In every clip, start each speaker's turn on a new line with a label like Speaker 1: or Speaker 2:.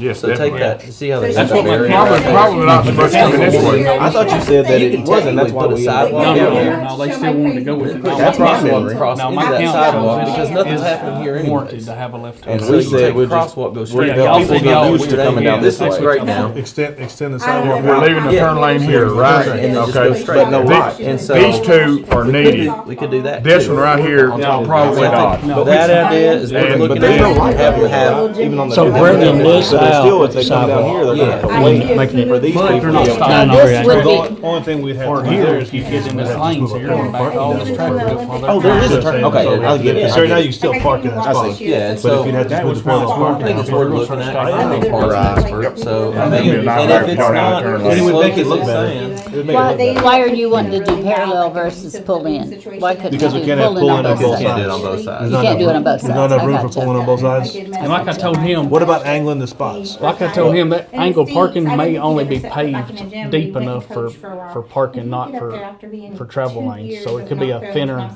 Speaker 1: Yes,
Speaker 2: So take
Speaker 1: definitely.
Speaker 2: that, see how they.
Speaker 3: That's
Speaker 2: end up
Speaker 3: what my
Speaker 2: burying
Speaker 3: problem-
Speaker 2: it.
Speaker 3: problem
Speaker 1: not so much coming this way.
Speaker 4: I thought you said that
Speaker 2: You can
Speaker 4: it wasn't, that's
Speaker 2: technically
Speaker 4: why
Speaker 2: put a
Speaker 4: we.
Speaker 2: sidewalk
Speaker 3: No, no,
Speaker 2: down
Speaker 3: no,
Speaker 2: there.
Speaker 3: no, they still wanted to go with it. No,
Speaker 4: That's
Speaker 3: my
Speaker 4: my
Speaker 3: council-
Speaker 4: memory.
Speaker 2: Cross
Speaker 3: No,
Speaker 2: into
Speaker 3: my
Speaker 2: that
Speaker 3: council
Speaker 2: sidewalk
Speaker 3: is-
Speaker 2: because nothing's
Speaker 3: is
Speaker 2: happening here
Speaker 3: Warranted
Speaker 2: anyways.
Speaker 3: to have a left turn.
Speaker 4: And
Speaker 2: So
Speaker 4: we
Speaker 2: you
Speaker 4: said
Speaker 2: take
Speaker 4: we're just.
Speaker 2: crosswalk, go straight
Speaker 3: Yeah,
Speaker 2: down.
Speaker 3: y'all
Speaker 4: People
Speaker 3: said
Speaker 4: get
Speaker 3: y'all
Speaker 4: used to
Speaker 3: would-
Speaker 4: coming
Speaker 3: yeah,
Speaker 4: down this
Speaker 3: that's
Speaker 4: way
Speaker 3: what
Speaker 4: right
Speaker 3: y'all
Speaker 4: now.
Speaker 5: Extend, extend the
Speaker 1: We're
Speaker 5: sidewalk.
Speaker 1: we're leaving the
Speaker 4: Yeah.
Speaker 1: turn lane here,
Speaker 4: Right,
Speaker 1: right?
Speaker 4: and then just
Speaker 1: Okay.
Speaker 4: go straight. But no
Speaker 1: These-
Speaker 4: lot,
Speaker 1: These,
Speaker 4: and so-
Speaker 1: two are needed.
Speaker 4: We could do that.
Speaker 1: This
Speaker 4: too.
Speaker 1: one right here,
Speaker 4: No,
Speaker 1: probably
Speaker 4: that's
Speaker 1: not.
Speaker 4: not-
Speaker 3: No,
Speaker 2: That
Speaker 3: it's-
Speaker 2: idea is
Speaker 1: Yeah,
Speaker 2: we're
Speaker 1: but
Speaker 2: looking
Speaker 1: they
Speaker 2: at
Speaker 1: don't
Speaker 4: like
Speaker 2: have to
Speaker 4: that.
Speaker 2: have,
Speaker 4: Even on the
Speaker 6: So
Speaker 4: drive.
Speaker 6: Brendan
Speaker 4: But
Speaker 6: lists
Speaker 4: it's Still,
Speaker 6: out
Speaker 4: if they
Speaker 6: the
Speaker 4: come down
Speaker 6: sidewalk.
Speaker 4: here, they're gonna have
Speaker 2: Yeah.
Speaker 4: to wait, like, for these people.
Speaker 3: But if
Speaker 4: to
Speaker 3: you're
Speaker 4: be able
Speaker 3: not
Speaker 6: Yeah.
Speaker 4: to-
Speaker 3: stopping
Speaker 6: Now,
Speaker 3: over
Speaker 6: this
Speaker 3: that
Speaker 6: would
Speaker 3: hill,
Speaker 6: be-
Speaker 5: The Only thing we'd have
Speaker 3: Or
Speaker 5: to do
Speaker 3: here,
Speaker 5: is
Speaker 3: if you
Speaker 5: keep
Speaker 3: get in
Speaker 5: people
Speaker 3: this
Speaker 5: that just
Speaker 3: lane,
Speaker 5: move
Speaker 3: so
Speaker 5: up
Speaker 3: you're
Speaker 5: here
Speaker 3: gonna
Speaker 5: and park
Speaker 3: back
Speaker 5: in
Speaker 3: all
Speaker 5: this
Speaker 3: the
Speaker 5: way.
Speaker 3: traffic up while they're
Speaker 4: Oh, there is a
Speaker 5: That's what
Speaker 4: turn,
Speaker 5: I'm
Speaker 4: okay,
Speaker 5: saying.
Speaker 4: I get it.
Speaker 5: So now
Speaker 4: I
Speaker 5: you
Speaker 4: get
Speaker 5: can
Speaker 4: it.
Speaker 5: still park in that
Speaker 4: I
Speaker 5: spot.
Speaker 4: see, yeah, and
Speaker 5: But
Speaker 4: so,
Speaker 5: if you'd
Speaker 4: I
Speaker 5: have to
Speaker 3: That
Speaker 5: split
Speaker 3: was
Speaker 5: the spot,
Speaker 3: my
Speaker 5: park
Speaker 3: problem.
Speaker 5: in
Speaker 4: think
Speaker 5: that
Speaker 4: it's
Speaker 5: spot.
Speaker 4: worth looking at, I am a parts expert, so, I
Speaker 1: Maybe
Speaker 4: mean,
Speaker 1: not
Speaker 4: and
Speaker 1: right
Speaker 4: if it's
Speaker 1: down that
Speaker 4: not,
Speaker 1: turn lane.
Speaker 4: look like it's
Speaker 2: It would make it look
Speaker 4: saying.
Speaker 2: better.
Speaker 4: It would make it
Speaker 6: Why,
Speaker 4: look better.
Speaker 6: why are you wanting to do parallel versus pull in? Why couldn't you
Speaker 5: Because we
Speaker 6: do
Speaker 5: can't have
Speaker 6: pull in on
Speaker 5: pull-in on
Speaker 6: both
Speaker 5: both
Speaker 6: sides?
Speaker 4: Can't do it
Speaker 5: sides.
Speaker 4: on both sides.
Speaker 6: You can't do it on both
Speaker 5: There's not
Speaker 6: sides.
Speaker 5: enough
Speaker 6: I
Speaker 5: room for
Speaker 6: gotcha.
Speaker 5: pulling on both sides.
Speaker 3: And like I told him.
Speaker 5: What about angling the spots?
Speaker 3: Like I told him, that angle parking may only be paved deep enough for, for parking, not for, for travel lanes. So it could be a thinner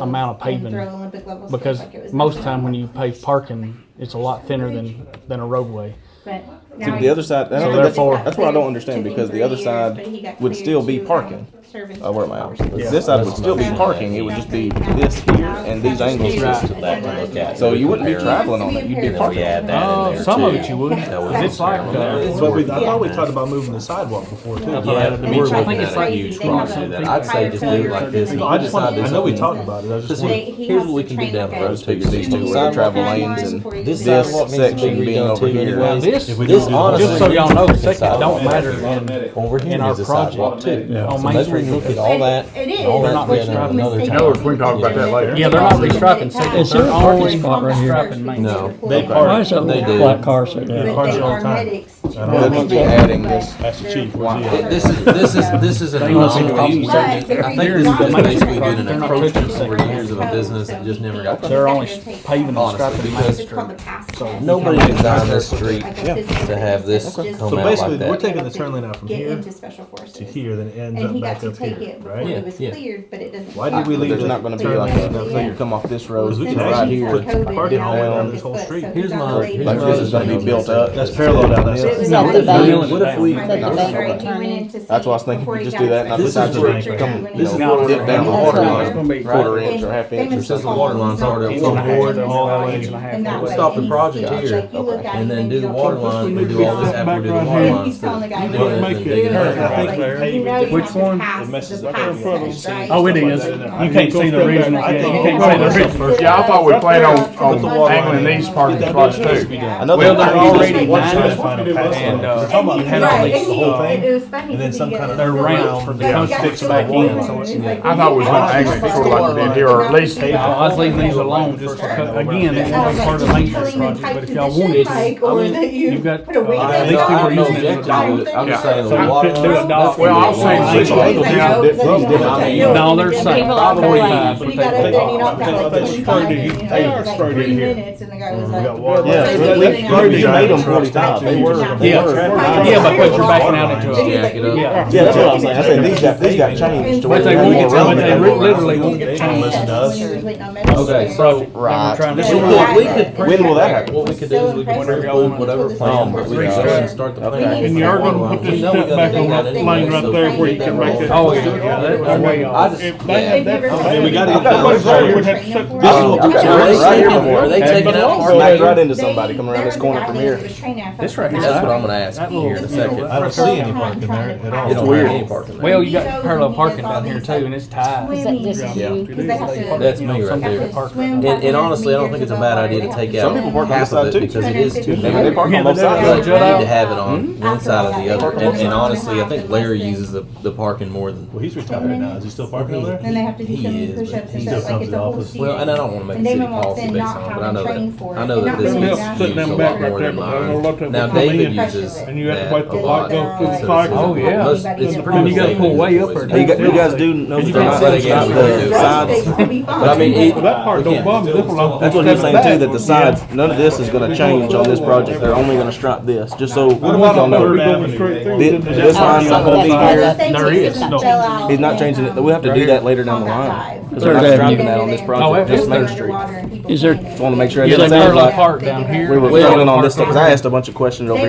Speaker 3: amount of paving. because most time when you pave parking, it's a lot thinner than, than a roadway.
Speaker 4: To the other side, I
Speaker 3: So
Speaker 4: don't think
Speaker 3: therefore-
Speaker 4: that's, that's what I don't understand, because the other side would still be parking. Uh, where am I? This side would still be parking, it would just be this here and these angles.
Speaker 2: That to look at.
Speaker 4: So you wouldn't be traveling on it, you'd be
Speaker 1: Then we
Speaker 4: parking.
Speaker 1: add that in
Speaker 3: Oh,
Speaker 1: there
Speaker 3: some of
Speaker 1: too.
Speaker 3: it you would.
Speaker 1: That way
Speaker 3: 'Cause it's like, uh,
Speaker 5: But we, I thought we talked about moving the sidewalk before too.
Speaker 3: Yeah.
Speaker 5: I
Speaker 1: Yeah,
Speaker 3: And
Speaker 1: we're
Speaker 3: it's like-
Speaker 1: looking
Speaker 3: it's
Speaker 1: at a
Speaker 3: like-
Speaker 1: huge
Speaker 3: they have
Speaker 1: cross
Speaker 3: a
Speaker 1: through that.
Speaker 3: big
Speaker 1: I'd say just do it like this. and
Speaker 5: I just want,
Speaker 1: decide
Speaker 5: I know we
Speaker 1: something.
Speaker 5: talked about it, I just
Speaker 4: This
Speaker 5: want.
Speaker 4: one, here's what we can do down the road too, these two
Speaker 2: Sidewalk
Speaker 4: travel lanes and
Speaker 2: This
Speaker 4: this
Speaker 2: sidewalk needs to be
Speaker 4: section being
Speaker 2: redone
Speaker 4: over
Speaker 2: too
Speaker 4: here.
Speaker 2: anyway.
Speaker 3: now this,
Speaker 5: If we
Speaker 2: This
Speaker 5: don't do the-
Speaker 3: just so
Speaker 2: honestly-
Speaker 3: y'all know, seconds don't matter in,
Speaker 2: Over here
Speaker 3: in our
Speaker 2: is a sidewalk
Speaker 3: project
Speaker 2: too. too.
Speaker 3: on
Speaker 2: So
Speaker 3: Main
Speaker 2: maybe we look
Speaker 3: Street.
Speaker 2: at all that,
Speaker 4: It is,
Speaker 2: all
Speaker 3: They're
Speaker 2: that
Speaker 3: not
Speaker 2: together at another
Speaker 1: You
Speaker 2: time.
Speaker 1: know, we can talk about that later.
Speaker 3: Yeah, they're not restriping
Speaker 7: Is
Speaker 3: seconds,
Speaker 7: there
Speaker 3: they're
Speaker 7: a parking
Speaker 3: only
Speaker 7: spot right here?
Speaker 3: restriping main.
Speaker 4: No.
Speaker 5: They
Speaker 7: Why
Speaker 5: park,
Speaker 7: is that
Speaker 4: They
Speaker 7: little
Speaker 4: do.
Speaker 7: black car sitting
Speaker 5: yeah,
Speaker 7: there?
Speaker 5: park all the time. I don't
Speaker 4: They
Speaker 5: know.
Speaker 4: must be adding this.
Speaker 5: That's the chief, where's he at?
Speaker 1: It- This is, this is, this is an
Speaker 3: They want some
Speaker 1: anomaly.
Speaker 3: coffee.
Speaker 1: I think
Speaker 3: They're
Speaker 1: this is
Speaker 3: not-
Speaker 1: just
Speaker 3: they're
Speaker 1: basically
Speaker 3: not-
Speaker 1: been
Speaker 3: they're
Speaker 1: an
Speaker 3: not
Speaker 1: approach
Speaker 3: touching
Speaker 1: for
Speaker 3: second.
Speaker 1: years of a business that just never got.
Speaker 3: They're only paving and
Speaker 1: Honestly,
Speaker 3: striping main
Speaker 1: because-
Speaker 3: street. So-
Speaker 1: Nobody designed this street
Speaker 7: to
Speaker 1: have this come
Speaker 5: So
Speaker 1: out
Speaker 5: basically,
Speaker 1: like that.
Speaker 5: we're taking the turn lane out from
Speaker 7: Get
Speaker 5: here
Speaker 7: into special
Speaker 5: to
Speaker 7: forces.
Speaker 5: here, then it ends
Speaker 7: And he
Speaker 5: up
Speaker 7: got
Speaker 5: back
Speaker 7: to
Speaker 5: up
Speaker 7: take
Speaker 5: here,
Speaker 7: it before
Speaker 5: right?
Speaker 7: it was
Speaker 1: Yeah.
Speaker 7: cleared, but it doesn't.
Speaker 5: Why did we
Speaker 4: But
Speaker 5: leave
Speaker 4: There's
Speaker 5: the
Speaker 4: not gonna be
Speaker 5: turn
Speaker 4: like
Speaker 5: lane
Speaker 4: a,
Speaker 5: up
Speaker 4: so you
Speaker 5: here?
Speaker 4: come off this
Speaker 5: Because
Speaker 4: road
Speaker 5: we
Speaker 4: to
Speaker 5: can
Speaker 4: right
Speaker 5: actually
Speaker 4: here.
Speaker 5: put parking all the way down this whole street.
Speaker 1: Here's my- here's
Speaker 4: Like this is gonna be built up.
Speaker 5: That's parallel down
Speaker 7: It's
Speaker 5: this.
Speaker 7: not the
Speaker 3: bank.
Speaker 4: What if we?
Speaker 7: Like the
Speaker 4: no,
Speaker 7: bank
Speaker 4: okay.
Speaker 7: would turn in.
Speaker 4: That's why I was thinking we just do that, and I
Speaker 1: This
Speaker 4: just, I
Speaker 1: is
Speaker 4: just
Speaker 5: right here.
Speaker 4: come, you
Speaker 1: This is
Speaker 4: know,
Speaker 1: what
Speaker 4: dip
Speaker 1: we're
Speaker 4: down the
Speaker 1: doing.
Speaker 4: water
Speaker 7: That's
Speaker 4: line,
Speaker 3: gonna be-
Speaker 4: quarter
Speaker 1: Right.
Speaker 4: inch or half inch
Speaker 7: Famous
Speaker 4: or
Speaker 1: Since the
Speaker 4: something.
Speaker 1: water line's already
Speaker 3: It's
Speaker 1: up
Speaker 3: not-
Speaker 1: from board,
Speaker 3: it's all the way
Speaker 7: Inch and a half.
Speaker 3: in
Speaker 7: We'll
Speaker 3: that
Speaker 1: stop the
Speaker 3: way.
Speaker 1: project
Speaker 7: Gotcha.
Speaker 1: here,
Speaker 7: Like, you look at it
Speaker 1: and then do the
Speaker 7: you
Speaker 1: water
Speaker 7: go,
Speaker 1: line, we do all this after we do the water
Speaker 7: And
Speaker 1: lines.
Speaker 7: he's telling the guy.
Speaker 1: Well,
Speaker 7: you're
Speaker 1: then
Speaker 7: gonna
Speaker 1: dig it up.
Speaker 5: I think
Speaker 7: Like,
Speaker 5: paving
Speaker 7: you know you
Speaker 5: Which
Speaker 7: have to
Speaker 5: one?
Speaker 7: pass
Speaker 5: It messes
Speaker 7: the
Speaker 5: up everything.
Speaker 7: passage, right?
Speaker 3: Oh, it is.
Speaker 5: You
Speaker 3: You can't see the
Speaker 5: original.
Speaker 3: original.
Speaker 5: I
Speaker 3: You
Speaker 5: think-
Speaker 3: can't see the original.
Speaker 1: Yeah, I thought we planned on,
Speaker 5: Put the wall
Speaker 1: on angling
Speaker 5: in.
Speaker 1: these parking spots too.
Speaker 4: Another
Speaker 3: Well,
Speaker 4: one.
Speaker 3: they're already
Speaker 5: One
Speaker 3: nine
Speaker 5: side
Speaker 3: and
Speaker 5: is fucking
Speaker 3: and,
Speaker 5: passed
Speaker 3: uh,
Speaker 5: over.
Speaker 3: It's almost
Speaker 5: And
Speaker 3: had
Speaker 5: he-
Speaker 3: all
Speaker 5: right,
Speaker 3: these
Speaker 5: and he-
Speaker 3: whole
Speaker 5: thing.
Speaker 7: It was funny.
Speaker 5: And then
Speaker 7: because
Speaker 5: some
Speaker 7: he
Speaker 5: kind of-
Speaker 7: got
Speaker 3: They're
Speaker 7: it
Speaker 3: round for the
Speaker 7: filled,
Speaker 3: cones
Speaker 7: but
Speaker 3: sticks
Speaker 7: you
Speaker 3: back
Speaker 7: got
Speaker 3: in,
Speaker 7: it
Speaker 3: so it's-
Speaker 7: filled, and it's
Speaker 1: I
Speaker 7: like,
Speaker 1: thought we was
Speaker 7: you
Speaker 1: gonna
Speaker 7: got
Speaker 1: angle
Speaker 7: it
Speaker 1: it sort of like we did here, or at least,
Speaker 3: Yeah, I was leaving these alone just because, again, it's only part of the
Speaker 7: Killing
Speaker 3: maintenance
Speaker 7: the
Speaker 3: project,
Speaker 7: type
Speaker 3: but if y'all
Speaker 7: position,
Speaker 3: want it,
Speaker 7: like, or that you
Speaker 3: you've got-
Speaker 7: put a weight
Speaker 3: Uh,
Speaker 7: on
Speaker 1: I
Speaker 3: least
Speaker 7: it.
Speaker 3: we were
Speaker 1: have no
Speaker 3: using it as a
Speaker 1: objection to it, I'm just saying the
Speaker 3: Yeah.
Speaker 1: water
Speaker 3: Do a
Speaker 1: line.
Speaker 3: dot.
Speaker 1: Well, I'll say
Speaker 3: Like,
Speaker 1: six
Speaker 3: like,
Speaker 1: angles
Speaker 7: no,
Speaker 1: down, dip-
Speaker 7: that's-
Speaker 1: dip down the hill.
Speaker 3: No, they're
Speaker 7: And
Speaker 3: saying
Speaker 7: people are
Speaker 3: probably
Speaker 7: complaining.
Speaker 3: five, but
Speaker 7: We
Speaker 3: they-
Speaker 7: got up there and you knocked
Speaker 5: they-
Speaker 7: out
Speaker 5: they-
Speaker 7: like twenty-five, and you
Speaker 5: they are
Speaker 7: know, like
Speaker 5: straight in
Speaker 7: three
Speaker 5: here.
Speaker 7: minutes, and the guy was
Speaker 5: We got
Speaker 7: like.
Speaker 5: water.
Speaker 7: "Well,
Speaker 4: Yeah,
Speaker 7: they
Speaker 4: they-
Speaker 7: didn't
Speaker 4: they-
Speaker 7: even
Speaker 4: they
Speaker 7: know."
Speaker 4: made them forty times. They were- they
Speaker 3: Yeah.
Speaker 4: were-
Speaker 3: Yeah, but what you're backing out into a.
Speaker 1: Jack it up.
Speaker 3: Yeah.
Speaker 4: Yeah, that's what I was saying, I said, these got, these got changed to where
Speaker 3: But
Speaker 4: they
Speaker 3: they
Speaker 4: had
Speaker 3: won't,
Speaker 4: more room
Speaker 3: but they
Speaker 4: than
Speaker 3: re-
Speaker 4: they were.
Speaker 3: literally won't
Speaker 7: They
Speaker 3: get
Speaker 7: passed
Speaker 3: past it.
Speaker 7: us when we was waiting on medicine.
Speaker 1: Okay,
Speaker 3: So,
Speaker 1: so
Speaker 3: they were
Speaker 4: Right.
Speaker 3: trying to-
Speaker 1: we could, we could
Speaker 7: When
Speaker 4: will that happen?
Speaker 1: What we could do is we could include whatever plan, but we could go ahead and start the plan.
Speaker 7: Okay. And you are
Speaker 1: gonna
Speaker 8: put this step back on that lane right there where you can make it.
Speaker 3: Oh, yeah, that, that way,
Speaker 1: I
Speaker 3: y'all.
Speaker 1: just,
Speaker 8: If they
Speaker 1: yeah.
Speaker 8: had that.
Speaker 4: And we gotta get
Speaker 8: That
Speaker 4: that
Speaker 8: way
Speaker 4: right
Speaker 8: there
Speaker 4: here.
Speaker 8: would have to set the-
Speaker 4: This is
Speaker 1: Oh,
Speaker 4: what we
Speaker 1: Okay,
Speaker 4: got
Speaker 1: are they
Speaker 4: right right here
Speaker 1: taking-
Speaker 4: before.
Speaker 1: are they taking out
Speaker 4: Smack right
Speaker 1: parking?
Speaker 4: into somebody coming around this corner from here.
Speaker 3: This right here.
Speaker 1: That's what I'm gonna ask you here in a second.
Speaker 5: I don't see any parking there at all.
Speaker 1: You don't have any parking there.
Speaker 3: Well, you got parallel parking down here too, and it's tied.
Speaker 6: Is that, this is
Speaker 1: Yeah.
Speaker 6: you?
Speaker 1: That's me right there.
Speaker 7: And,
Speaker 1: And, and honestly, I don't think it's a bad idea to take out
Speaker 4: Some people park on
Speaker 1: half of
Speaker 4: this side,
Speaker 1: it
Speaker 4: too.
Speaker 1: because it is too
Speaker 4: I mean, they
Speaker 1: narrow.
Speaker 4: park
Speaker 3: Yeah,
Speaker 4: on both
Speaker 3: but that-
Speaker 1: But
Speaker 4: sides.
Speaker 1: you
Speaker 3: Judd, I-
Speaker 1: need to have it on one side or the other. And, and honestly, I think Larry uses the, the parking more than.
Speaker 5: Well, he's retired now. Is he still parking over there?
Speaker 7: Then they have to do
Speaker 1: He
Speaker 7: so
Speaker 1: is,
Speaker 7: many
Speaker 1: but
Speaker 7: push-ups
Speaker 1: he
Speaker 7: and
Speaker 1: still
Speaker 7: stuff, like
Speaker 5: comes
Speaker 7: it's
Speaker 5: to
Speaker 7: a
Speaker 5: the
Speaker 7: whole
Speaker 5: office.
Speaker 7: season.
Speaker 1: Well, and I don't want to make
Speaker 7: And
Speaker 1: a city
Speaker 7: Damon walks
Speaker 1: policy
Speaker 7: in
Speaker 1: based
Speaker 7: not
Speaker 1: on it, but I
Speaker 7: having
Speaker 1: know
Speaker 7: trained
Speaker 1: that,
Speaker 7: for
Speaker 1: I
Speaker 7: it
Speaker 1: know that
Speaker 7: and not
Speaker 1: this
Speaker 7: being
Speaker 1: is
Speaker 7: down
Speaker 1: used a
Speaker 8: sitting
Speaker 1: lot
Speaker 8: back right
Speaker 1: more
Speaker 8: there,
Speaker 1: than
Speaker 8: but I
Speaker 1: mine.
Speaker 8: don't let that
Speaker 1: Now,
Speaker 8: come in.
Speaker 1: David uses
Speaker 7: And
Speaker 8: you have to
Speaker 1: that
Speaker 8: wait
Speaker 1: a
Speaker 8: till the light
Speaker 1: lot.
Speaker 8: goes through the
Speaker 1: So
Speaker 8: cycle.
Speaker 1: it's-
Speaker 3: Oh, yeah.
Speaker 1: most- It's pretty.
Speaker 3: And you gotta pull way up or
Speaker 4: You got-
Speaker 3: down.
Speaker 4: you guys do know
Speaker 3: you
Speaker 4: they're
Speaker 3: can't see
Speaker 4: not gonna
Speaker 3: the
Speaker 4: stop
Speaker 1: driveway.
Speaker 4: the sides.
Speaker 1: But I mean,
Speaker 8: Well,
Speaker 1: it,
Speaker 8: That part
Speaker 1: Yeah.
Speaker 8: don't bother me.
Speaker 4: That's what he was saying too, that the sides, none of this is gonna change on this project, they're only gonna strip this, just so
Speaker 5: What
Speaker 4: y'all
Speaker 5: about on
Speaker 4: know.
Speaker 5: Third
Speaker 8: We're going
Speaker 5: Avenue?
Speaker 8: straight through,
Speaker 4: Thi-
Speaker 8: then there's-
Speaker 4: This line's not gonna be
Speaker 6: Oh, That's why
Speaker 4: here,
Speaker 6: that-
Speaker 3: There is.
Speaker 4: he's not changing it, we'll have to do that later down the line. Because we're not driving that on this
Speaker 7: Oh, it-
Speaker 4: project, just Main
Speaker 7: it's-
Speaker 4: Street.
Speaker 9: Underwater and people
Speaker 7: Is there-
Speaker 9: playing it.
Speaker 4: Just wanna make sure
Speaker 7: Yeah,
Speaker 4: it
Speaker 7: they
Speaker 4: doesn't sound
Speaker 7: park
Speaker 4: like
Speaker 7: park down here.
Speaker 4: we were
Speaker 7: They
Speaker 4: voting
Speaker 7: park
Speaker 4: on this stuff, 'cause I asked a bunch of questions over here.